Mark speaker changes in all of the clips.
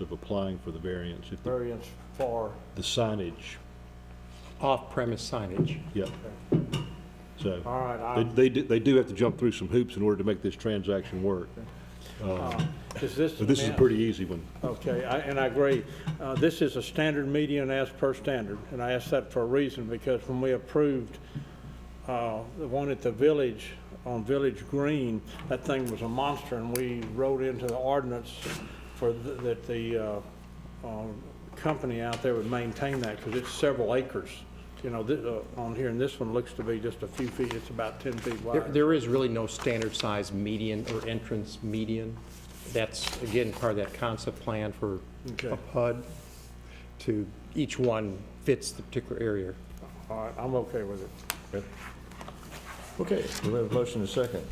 Speaker 1: of applying for the variance, if the
Speaker 2: variance for,
Speaker 1: the signage,
Speaker 3: off-premise signage.
Speaker 1: yep. So,
Speaker 2: all right,
Speaker 1: they,
Speaker 2: I,
Speaker 1: they do, they do have to jump through some hoops in order to make this transaction work.
Speaker 2: is this?
Speaker 1: But this is a
Speaker 2: meant-
Speaker 1: pretty easy one.
Speaker 2: Okay, I- and I agree. Uh, This is a standard median as per standard, and I asked that for a reason, because when we approved uh, the one at the village, on Village Green, that thing was a monster, and we wrote into the ordinance for, th- that the uh, um, company out there would maintain that, because it's several acres. You know, thi- uh, on here, and this one looks to be just a few feet, it's about 10 feet
Speaker 3: There-
Speaker 2: wide.
Speaker 3: There is really no standard size median or entrance median. That's, again, part of that concept plan for
Speaker 2: Okay.
Speaker 3: a PUD to, each one fits the particular area.
Speaker 2: All right, I'm okay with it.
Speaker 4: Okay, we have a motion and a second.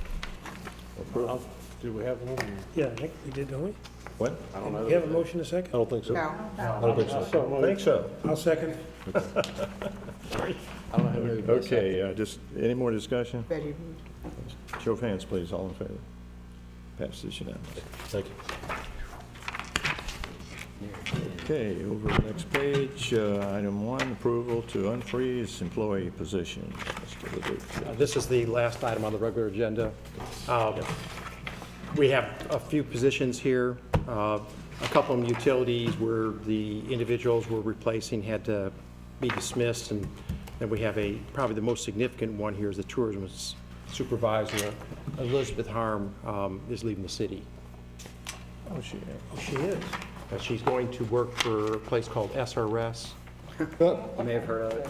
Speaker 2: I'll- Do we have one?
Speaker 5: Yeah, I think we did, don't we?
Speaker 4: What?
Speaker 2: I don't know.
Speaker 5: We have a motion to
Speaker 4: I
Speaker 5: second?
Speaker 4: don't think so. I don't think so.
Speaker 2: So
Speaker 4: I
Speaker 2: moved.
Speaker 4: think so.
Speaker 5: I'll second.
Speaker 4: Okay, uh, just, any more discussion?
Speaker 6: Betty moved.
Speaker 4: Show of hands, please, all in favor. Pass this unanimously.
Speaker 1: Thank you.
Speaker 4: Okay, over to the next page, uh, item one, approval to unfreeze employee positions. Mr. Leduc.
Speaker 3: Uh, This is the last item on the regular agenda. Uh, We have a few positions here, uh, a couple of them utilities where the individuals we're replacing had to be dismissed, and then we have a, probably the most significant one here is the tourism supervisor, Elizabeth Harm, um, is leaving the city.
Speaker 4: Oh, she,
Speaker 5: She is.
Speaker 3: Uh, She's going to work for a place called SRS, you may have heard of it.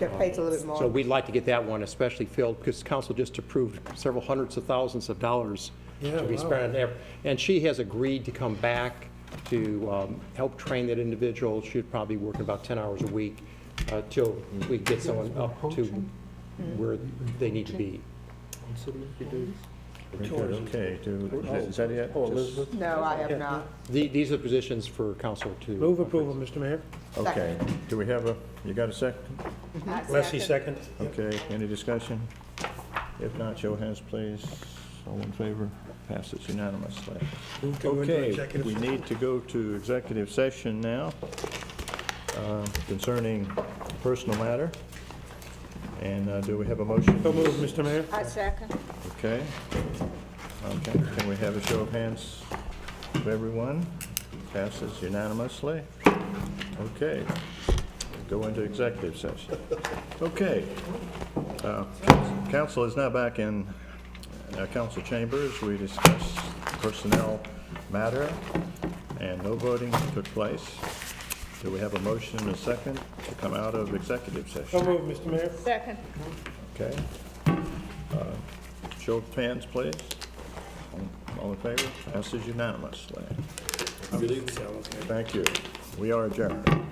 Speaker 6: That pays a little bit more.
Speaker 3: So we'd like to get that one especially filled, because council just approved several hundreds of thousands of dollars
Speaker 5: Yeah,
Speaker 3: to be
Speaker 5: wow.
Speaker 3: spent on there. And she has agreed to come back to um, help train that individual. She'd probably work about 10 hours a week uh, till we get someone up to where they need to be.
Speaker 4: very good, okay, do, is that it?
Speaker 2: Oh,
Speaker 4: Just-
Speaker 2: Elizabeth?
Speaker 6: No, I have not.
Speaker 3: The- These are positions for council to.
Speaker 5: Move approval, Mr. Mayor.
Speaker 4: Okay, do we have a, you got a second?
Speaker 5: Leslie, second.
Speaker 4: Okay, any discussion? If not, show of hands, please. All in favor? Passes unanimously.
Speaker 5: Move to go into
Speaker 4: Okay,
Speaker 5: executive
Speaker 4: we
Speaker 5: session.
Speaker 4: need to go to executive session now uh, concerning personal matter. And uh, do we have a motion?
Speaker 5: So moved, Mr. Mayor.
Speaker 6: I second.
Speaker 4: Okay. Okay, can we have a show of hands of everyone? Passes unanimously. Okay, go into executive session. Okay. Uh, Council is now back in uh, council chambers. We discussed personnel matter, and no voting took place. Do we have a motion and a second to come out of executive
Speaker 5: So
Speaker 4: session?
Speaker 5: moved, Mr. Mayor.
Speaker 6: Second.
Speaker 4: Okay. Uh, Show of hands, please. All in favor? Passes unanimously. Thank you. We are adjourned.